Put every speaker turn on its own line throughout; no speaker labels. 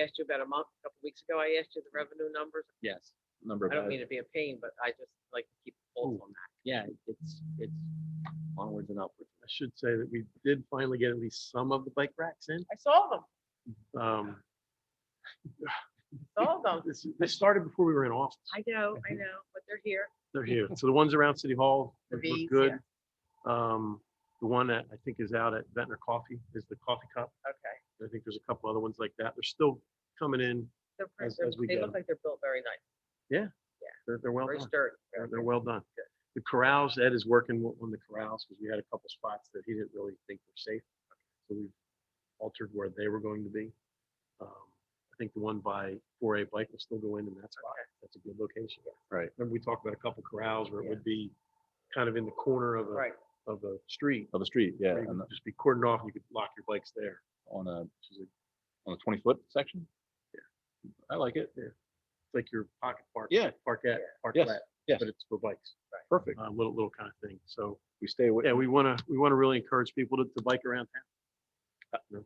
asked you about a month, a couple weeks ago, I asked you the revenue numbers.
Yes, number
I
of,
don't
votes.
mean to be a pain, but I just like to keep a pulse
Ooh.
on that.
yeah, it's, it's onwards and upwards.
I should say that we did finally get at least some of the bike racks in.
I saw them,
Um,
saw them.
This, this started before we were in office.
I know, I know, but they're here.
They're here. So the ones around City Hall
The
look
bees,
good. Um, The one that I think is out at Ventnor Coffee is the coffee cup.
Okay.
I think there's a couple other ones like that. They're still coming in.
They're, pre-
As-
they're-
as we
they
get
look
'em.
like they're built very nice,
They're, they're well
very
done.
sturdy.
They're,
very
they're
good.
well done. The corrals, Ed is working wo- on the corrals because we had a couple spots that he didn't really think were safe. So we altered where they were going to be. Um, I think the one by four A bike will still go in in that spot. That's a good location.
Right.
Remember, we talked about a couple corrals where it
Yeah.
would be kind of in the corner of a,
Right,
of a street.
Of the street, yeah,
where you
on
would
the-
Just be cordoned off and you could lock your bikes there.
on a, on a twenty foot section? I like it.
It's like your pocket park.
Yeah.
Parkette,
Yes,
parklet,
yes.
but it's for bikes,
Perfect.
a little, little kind of thing. So
We stay away,
Yeah, we want to, we want to really encourage people to, to bike around Uh, town.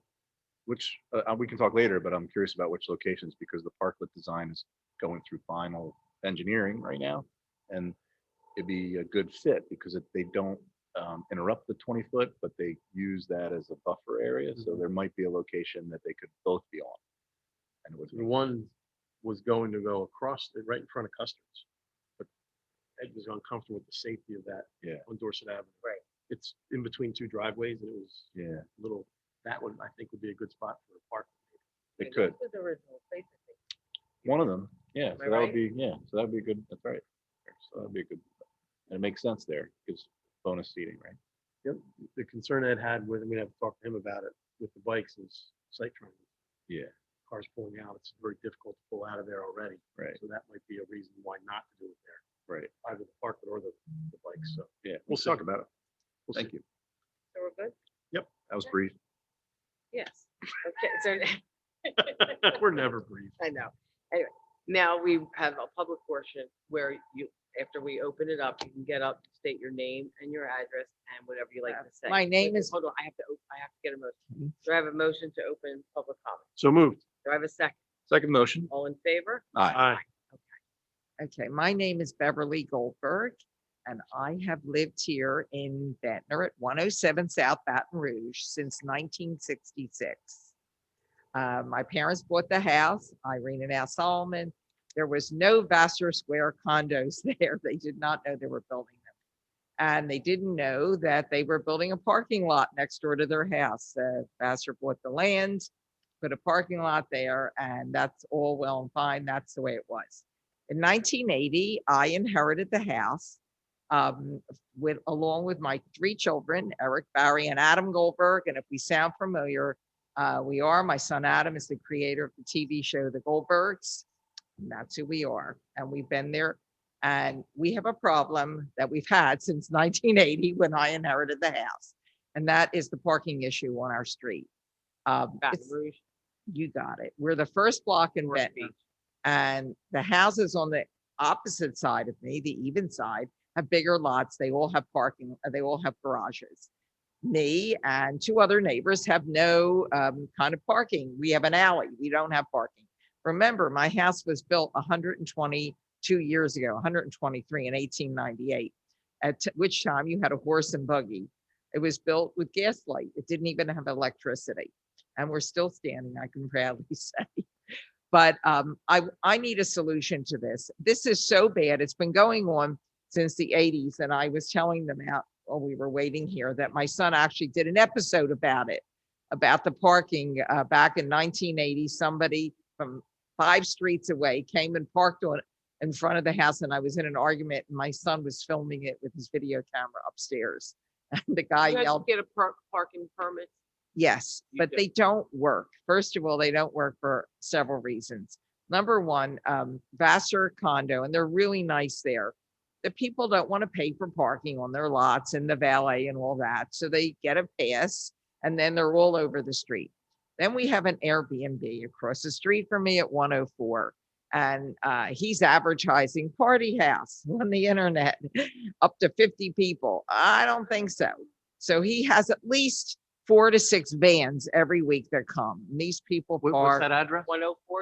which, uh, uh, we can talk later, but I'm curious about which locations because the parklet design is going through final engineering right now. And it'd be a good fit because if they don't um, interrupt the twenty foot, but they use that as a buffer area. So
Mhm.
there might be a location that they could both be on. And it would,
The one was going to go across, it right in front of Custer's. But Ed was uncomfortable with the safety of that.
Yeah.
On Dorset Avenue.
Right.
It's in between two driveways and it was
yeah,
a little, that one I think would be a good spot for a park.
yeah,
it could.
This was the original place, I think.
One of them,
Am
yeah,
I
so that
right?
would be, yeah, so that'd be a good, that's right. So that'd be a good, and it makes sense there, gives bonus seating, right?
The concern Ed had with, and we have to talk to him about it, with the bikes is sight triangle.
Yeah.
Cars pulling out, it's very difficult to pull out of there already.
Right.
So that might be a reason why not to do it there,
Right,
either the parklet or the, the bikes, so.
yeah.
We'll talk
about it.
we'll see.
Thank you.
So we're good?
That was
Okay.
brief.
Yes. Okay, so
We're never brief.
I know. Anyway, now we have a public portion where you, after we open it up, you can get up, state your name and your address and whatever you like to say.
my name
Wait,
is-
Hold on, I have to, op- I have to get a motion.
Mm-hmm.
Mhm.
Do I have a motion to open public comment?
So moved.
Do I have a second?
Second motion.
All in favor?
Aye.
Aye.
Okay, my name is Beverly Goldberg, and I have lived here in Ventnor at one oh seven South Baton Rouge since nineteen sixty-six. Uh, my parents bought the house, Irene and Al Solomon. There was no Vassar Square condos there. They did not know they were building them. And they didn't know that they were building a parking lot next door to their house. Uh, Vassar bought the land, put a parking lot there, and that's all well and fine. That's the way it was. In 1980, I inherited the house um, with, along with my three children, Eric, Barry, and Adam Goldberg. And if we sound familiar, uh, we are. My son Adam is the creator of the TV show The Goldbergs. And that's who we are. And we've been there. And we have a problem that we've had since 1980 when I inherited the house. And that is the parking issue on our street. Um,
Baton
it's-
Rouge,
You got it. We're the first block in
North
Ventnor
Beach.
and the houses on the opposite side of me, the even side, have bigger lots. They all have parking, uh, they all have garages. Me and two other neighbors have no um, kind of parking. We have an alley. We don't have parking. Remember, my house was built 122 years ago, 123 in 1898, at t- which time you had a horse and buggy. It was built with gaslight. It didn't even have electricity. And we're still standing, I can proudly say but um, I w- I need a solution to this. This is so bad. It's been going on since the 80s, and I was telling them out while we were waiting here that my son actually did an episode about it, about the parking uh, back in 1980. Somebody from five streets away came and parked on in front of the house, and I was in an argument, and my son was filming it with his video camera upstairs, and the guy
You guys
yelled.
Get a park, parking permit.
Yes,
You
but
do.
they don't work. First of all, they don't work for several reasons. Number one, um, Vassar condo, and they're really nice there. The people don't want to pay for parking on their lots and the valet and all that, so they get a pass and then they're all over the street. Then we have an Airbnb across the street from me at one oh four. And uh, he's advertising party house on the internet, up to fifty people. I don't think so. So he has at least
four to six vans every week that come. And These people
What-
park.
What's that address?
One oh four